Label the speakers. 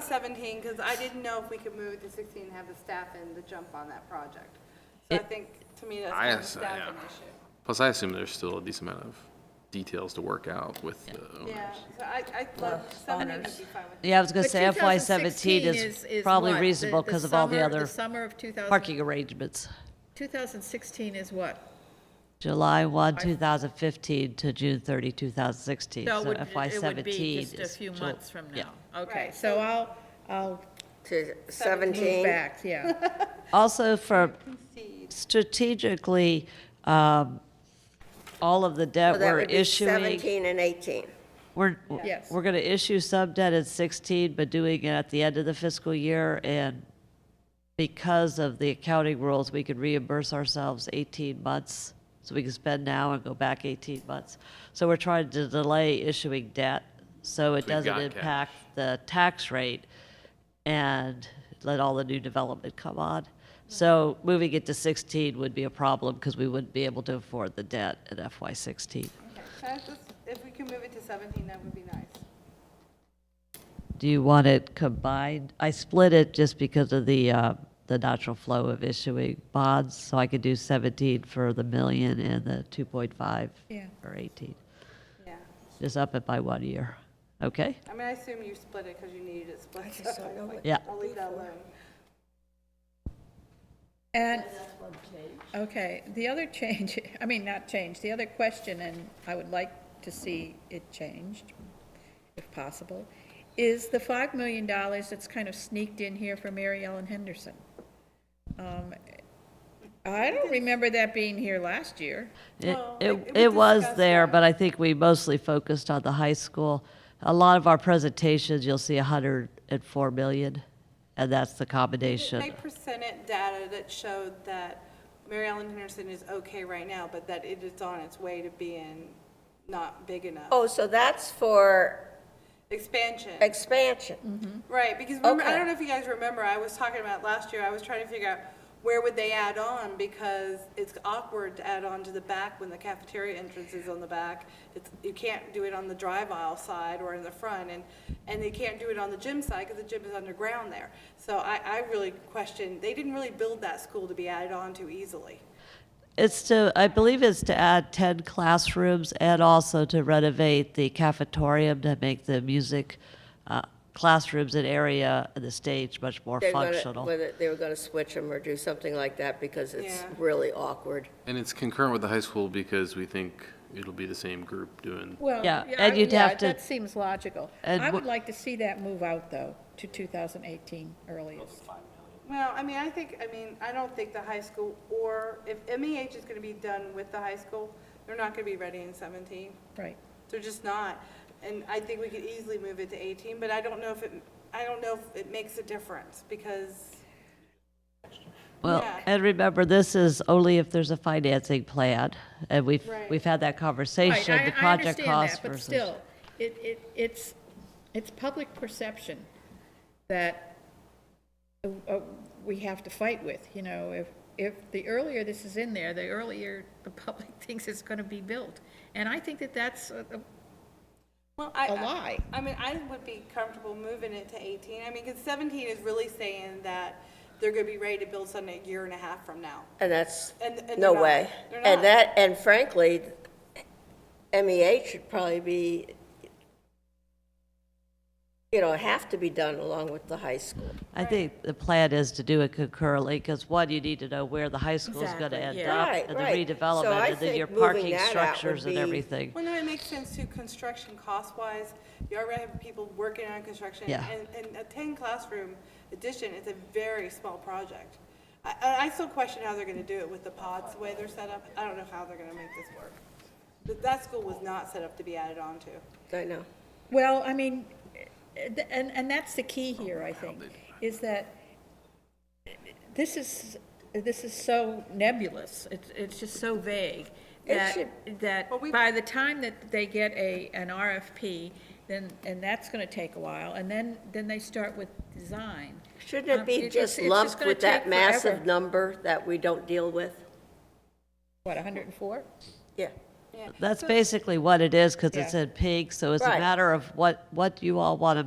Speaker 1: seventeen, because I didn't know if we could move it to sixteen and have the staff in the jump on that project. So I
Speaker 2: It-
Speaker 1: think, to me, that's
Speaker 3: I
Speaker 1: kind of a
Speaker 3: ass-
Speaker 1: staffing
Speaker 3: yeah.
Speaker 1: issue.
Speaker 3: Plus, I assume there's still a decent amount of details to work out with the owners.
Speaker 1: Yeah, so I, I'd love, seventeen would be fine with me.
Speaker 2: Yeah, I was going to
Speaker 4: But
Speaker 2: say FY
Speaker 4: 2016
Speaker 2: 17 is probably
Speaker 4: what? The-
Speaker 2: reasonable
Speaker 4: the
Speaker 2: because of all the
Speaker 4: summer-
Speaker 2: other
Speaker 4: The summer of 2000
Speaker 2: parking arrangements.
Speaker 4: 2016 is what?
Speaker 2: July 1, 2015 to June 30, 2016.
Speaker 4: So it would-
Speaker 2: So FY
Speaker 4: it would be
Speaker 2: 17 is.
Speaker 4: just a few
Speaker 2: Ju-
Speaker 4: months from
Speaker 2: yeah.
Speaker 4: now. Okay,
Speaker 1: Right,
Speaker 4: so I'll, I'll
Speaker 5: to
Speaker 4: move
Speaker 5: 17.
Speaker 4: back, yeah.
Speaker 2: Also for strategically, um, all of the
Speaker 5: So
Speaker 2: debt
Speaker 5: that
Speaker 2: we're
Speaker 5: would be
Speaker 2: issuing,
Speaker 5: 17 and 18.
Speaker 2: we're,
Speaker 4: Yes.
Speaker 2: we're going to issue some debt at 16, but doing it at the end of the fiscal year. And because of the accounting rules, we could reimburse ourselves 18 months. So we can spend now and go back 18 months. So we're trying to delay issuing debt so it
Speaker 3: So we've
Speaker 2: doesn't
Speaker 3: got
Speaker 2: impact the tax rate and let all the new development come on. So moving it to 16 would be a problem because we wouldn't be able to afford the debt at FY16.
Speaker 1: Okay, can I just- If we can move it to seventeen, that would be nice.
Speaker 2: Do you want it combined? I split it just because of the, uh, the natural flow of issuing bonds, so I could do 17 for the million and the 2.5
Speaker 4: Yeah.
Speaker 2: or 18.
Speaker 1: Yeah,
Speaker 2: Just up it by one year. Okay?
Speaker 1: I mean, I assume you split it because you needed it split. so
Speaker 2: Yeah.
Speaker 1: I'll leave that alone.
Speaker 4: And, okay, the other change, I mean, not change, the other question, and I would like to see it changed, if possible, is the $5 million that's kind of sneaked in here for Mary Ellen Henderson. Um, I don't remember that being here last year.
Speaker 2: It,
Speaker 1: Well,
Speaker 2: it,
Speaker 1: it- we
Speaker 2: it was
Speaker 1: discussed
Speaker 2: there,
Speaker 1: that.
Speaker 2: but I think we mostly focused on the high school. A lot of our presentations, you'll see 104 million, and that's the
Speaker 1: They
Speaker 2: combination.
Speaker 1: presented data that showed that Mary Ellen Henderson is okay right now, but that it is on its way to being not big enough.
Speaker 5: Oh, so that's for
Speaker 1: Expansion,
Speaker 5: expansion.
Speaker 1: right, because remember, I
Speaker 5: Okay.
Speaker 1: don't know if you guys remember, I was talking about last year, I was trying to figure out where would they add on, because it's awkward to add on to the back when the cafeteria entrance is on the back. It's, you can't do it on the drive aisle side or in the front, and, and they can't do it on the gym side, because the gym is underground there. So I, I really question, they didn't really build that school to be added on to easily.
Speaker 2: It's to, I believe it's to add 10 classrooms and also to renovate the cafetorium to make the music uh, classrooms and area and the stage much more
Speaker 5: They're gonna-
Speaker 2: functional.
Speaker 5: Whether they were going to switch them or do something like that because it's
Speaker 1: Yeah.
Speaker 5: really awkward.
Speaker 3: And it's concurrent with the high school because we think it'll be the same group doing.
Speaker 4: Well,
Speaker 2: Yeah,
Speaker 4: I-
Speaker 2: and you'd
Speaker 4: yeah,
Speaker 2: have to-
Speaker 4: That seems logical.
Speaker 2: And
Speaker 4: I
Speaker 2: wha-
Speaker 4: would like to see that move out, though, to 2018 earliest.
Speaker 1: Well, I mean, I think, I mean, I don't think the high school, or if MEH is gonna be done with the high school, they're not gonna be ready in seventeen.
Speaker 4: Right.
Speaker 1: They're just not. And I think we could easily move it to eighteen, but I don't know if it, I don't know if it makes a difference, because,
Speaker 2: Well,
Speaker 1: yeah.
Speaker 2: and remember, this is only if there's a financing plan, and we've,
Speaker 1: Right.
Speaker 2: we've had that
Speaker 4: Right,
Speaker 2: conversation,
Speaker 4: I-
Speaker 2: the
Speaker 4: I
Speaker 2: project
Speaker 4: understand
Speaker 2: cost
Speaker 4: that, But
Speaker 2: versus.
Speaker 4: still, it, it, it's, it's public perception that uh, uh, we have to fight with, you know, if, if the earlier this is in there, the earlier the public thinks it's gonna be built. And I think that that's, a- a-
Speaker 1: well, I.
Speaker 4: A lie.
Speaker 1: I mean, I would be comfortable moving it to eighteen. I mean, because seventeen is really saying that they're gonna be ready to build something a year and a half from now.
Speaker 5: And that's,
Speaker 1: And- and they're
Speaker 5: no
Speaker 1: not.
Speaker 5: way.
Speaker 1: They're not.
Speaker 5: And that, and frankly, MEH should probably be, you know, have to be done along with the high school.
Speaker 2: I think the plan is to do it concurrently, because one, you need to know where the high school's gonna
Speaker 4: Exactly,
Speaker 2: end
Speaker 4: yeah.
Speaker 2: up,
Speaker 5: Right,
Speaker 2: and the
Speaker 5: right. So I
Speaker 2: redevelopment, and then
Speaker 5: think
Speaker 2: your
Speaker 5: moving
Speaker 2: parking
Speaker 5: that out
Speaker 2: structures and
Speaker 5: would be-
Speaker 2: everything.
Speaker 1: Well, no, it makes sense too, construction cost-wise, you already have people working on construction.
Speaker 2: Yeah.
Speaker 1: And, and a ten classroom addition is a very small project. I, I I still question how they're gonna do it with the pods, the way they're set up, I don't know how they're gonna make this work. But that school was not set up to be added on to.
Speaker 5: I know.
Speaker 4: well, I mean, eh, th- and, and that's the key here, I think, is that this is, this is so nebulous, it's, it's just so vague,
Speaker 5: It
Speaker 4: that,
Speaker 5: should-
Speaker 4: that
Speaker 1: Well, we-
Speaker 4: by the time that they get a, an RFP, then, and that's gonna take a while, and then, then they start with design.
Speaker 5: Shouldn't
Speaker 4: Um,
Speaker 5: it be
Speaker 4: it's-
Speaker 5: just
Speaker 4: it's
Speaker 5: lumped
Speaker 4: gonna
Speaker 5: with that
Speaker 4: take
Speaker 5: massive
Speaker 4: forever.
Speaker 5: number that we don't deal with?
Speaker 4: What, hundred and four?
Speaker 5: Yeah.
Speaker 2: That's basically what it is, because it's
Speaker 4: Yeah.
Speaker 2: in pink, so it's a
Speaker 5: Right.
Speaker 2: matter of what, what you all want to